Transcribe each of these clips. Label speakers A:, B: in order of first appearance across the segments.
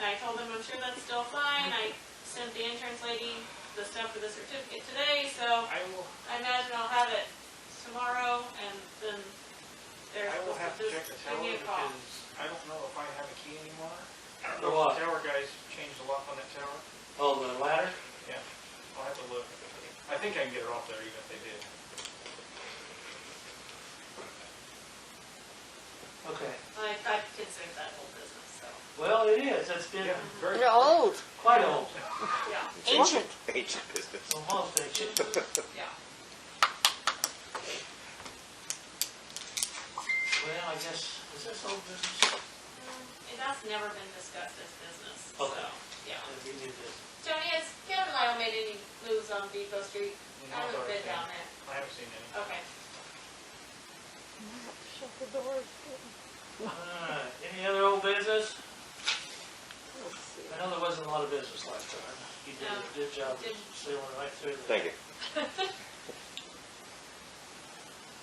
A: And I told them, I'm sure that's still fine, I sent the insurance lady the stuff for the certificate today, so
B: I will,
A: I imagine I'll have it tomorrow, and then they're
B: I will
A: supposed
B: have
A: to
B: to check the
A: just give me
B: tower
A: a call.
B: because I don't know if I have a key anymore. I don't
C: For
B: know
C: what?
B: if the tower guys changed the lock on that tower.
C: Oh, the ladder?
B: Yeah, I'll have to look. I think I can get it off there even if they did.
C: Okay.
A: Like, I consider that whole business, so,
C: Well, it is, it's been
B: Yeah, very.
D: They're old,
C: quite old,
A: yeah,
D: ancient.
E: Ancient business.
C: almost ancient.
A: Mm-hmm. yeah.
C: Well, I guess, is this old business?
A: And that's never been discussed as business, so,
C: Okay.
A: yeah.
C: If we did this.
A: Tony, has Kevin and I made any moves on Depot Street?
B: No,
A: I haven't been
B: I
A: down
B: don't
A: there.
B: think- I haven't seen any.
A: Okay.
D: Shut the doors.
C: Alright, any other old business?
D: Let's see.
C: I know there wasn't a lot of business last time. You did
A: No.
C: a good job
A: Didn't.
C: sailing right through there.
E: Thank you.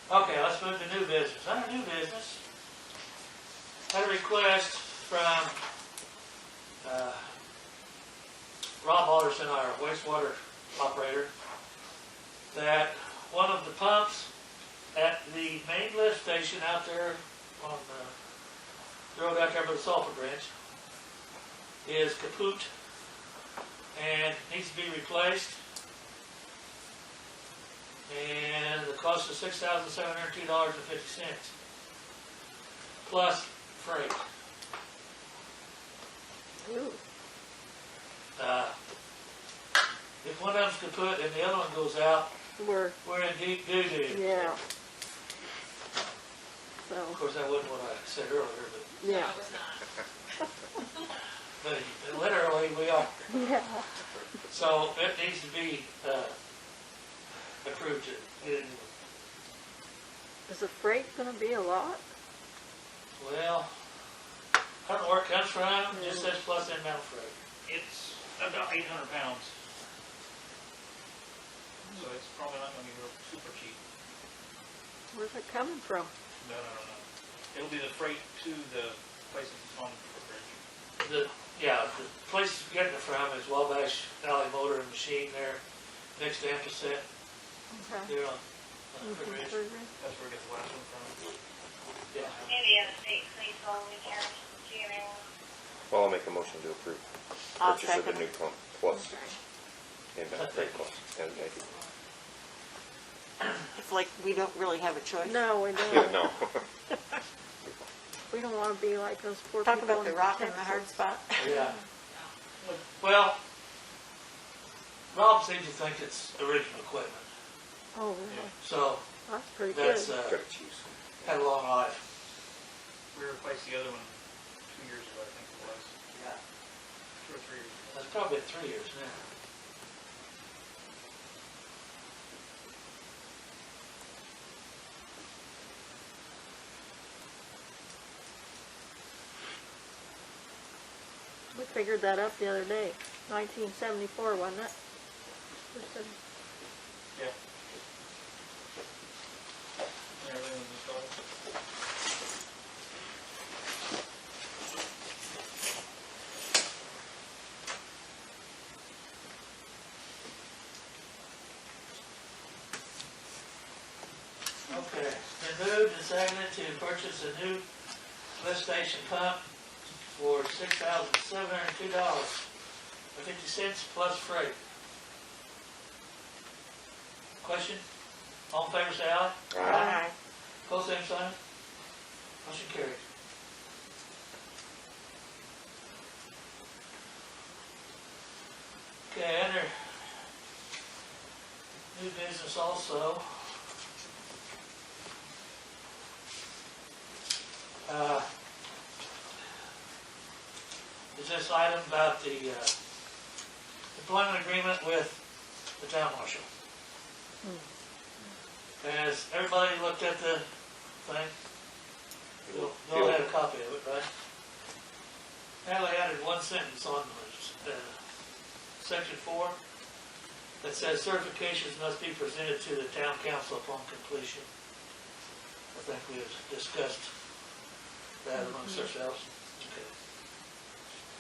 C: Okay, let's move to new business. Under new business, had a request from, uh, Rob Alderson, our wastewater operator, that one of the pumps at the main lift station out there on the road out there by the Sulphur Branch is kaput and needs to be replaced. And the cost is six thousand seven hundred two dollars and fifty cents. Plus freight.
D: Ooh,
C: Uh, If one of them's kaput and the other one goes out,
D: We're,
C: we're in deep doo-doo.
D: yeah.
C: Of
D: So,
C: course, that wasn't what I said earlier, but,
A: No,
D: yeah,
A: it was not.
C: but literally we are.
D: yeah.
C: So it needs to be, uh, approved to get it.
D: Is the freight gonna be a lot?
C: Well, I don't know where it comes from, it just says plus inbound freight.
B: It's about eight hundred pounds. So it's probably not gonna be real super cheap.
D: Where's it coming from?
B: No, no, no, no. It'll be the freight to the places it's on for bridge.
C: The, yeah, the place it's getting it from is Wabash Alley Motor and Machine there, next to Amperset,
D: Okay.
C: there on, on Crooked
D: Mhm,
C: Ridge.
D: mhm.
B: That's where we get the last one from.
C: Yeah,
F: Maybe a state police only carry GMA.
E: Well, I'll make a motion to approve
D: I'll
E: purchase of the
D: second.
E: new pump plus inbound freight cost. And uh, I-
G: It's like we don't really have a choice.
D: No, we
E: Yeah,
D: don't,
E: no.
D: we don't wanna be like those poor people.
G: Talk about the
D: in
G: rock and the
D: Texas.
G: hard spot.
C: yeah. Well, Rob seems to think it's original equipment,
D: Oh, really?
C: so
D: That's pretty good.
C: that's, uh,
E: Gotta choose.
C: had a long life.
B: We replaced the other one two years ago, I think it was,
C: Yeah.
B: two or three years ago.
C: That's probably three years now.
E: uh,
D: We figured that up the other day, nineteen seventy-four, wasn't it? Or seven-
B: Yeah. And everything was installed.
C: Okay, been moved and seconded to purchase a new lift station pump for six thousand seven hundred and two dollars and fifty cents plus freight. Question? All in favor, say aye.
E: Aye.
C: Close same sign. Motion carried. Okay, under new business also. Uh, Is this item about the uh, employment agreement with the town marshal? Has everybody looked at the thing? You'll, you'll have a copy of it, right? Natalie added one sentence on, uh, section four, that says certifications must be presented to the town council upon completion. I think we have discussed that amongst ourselves. Okay.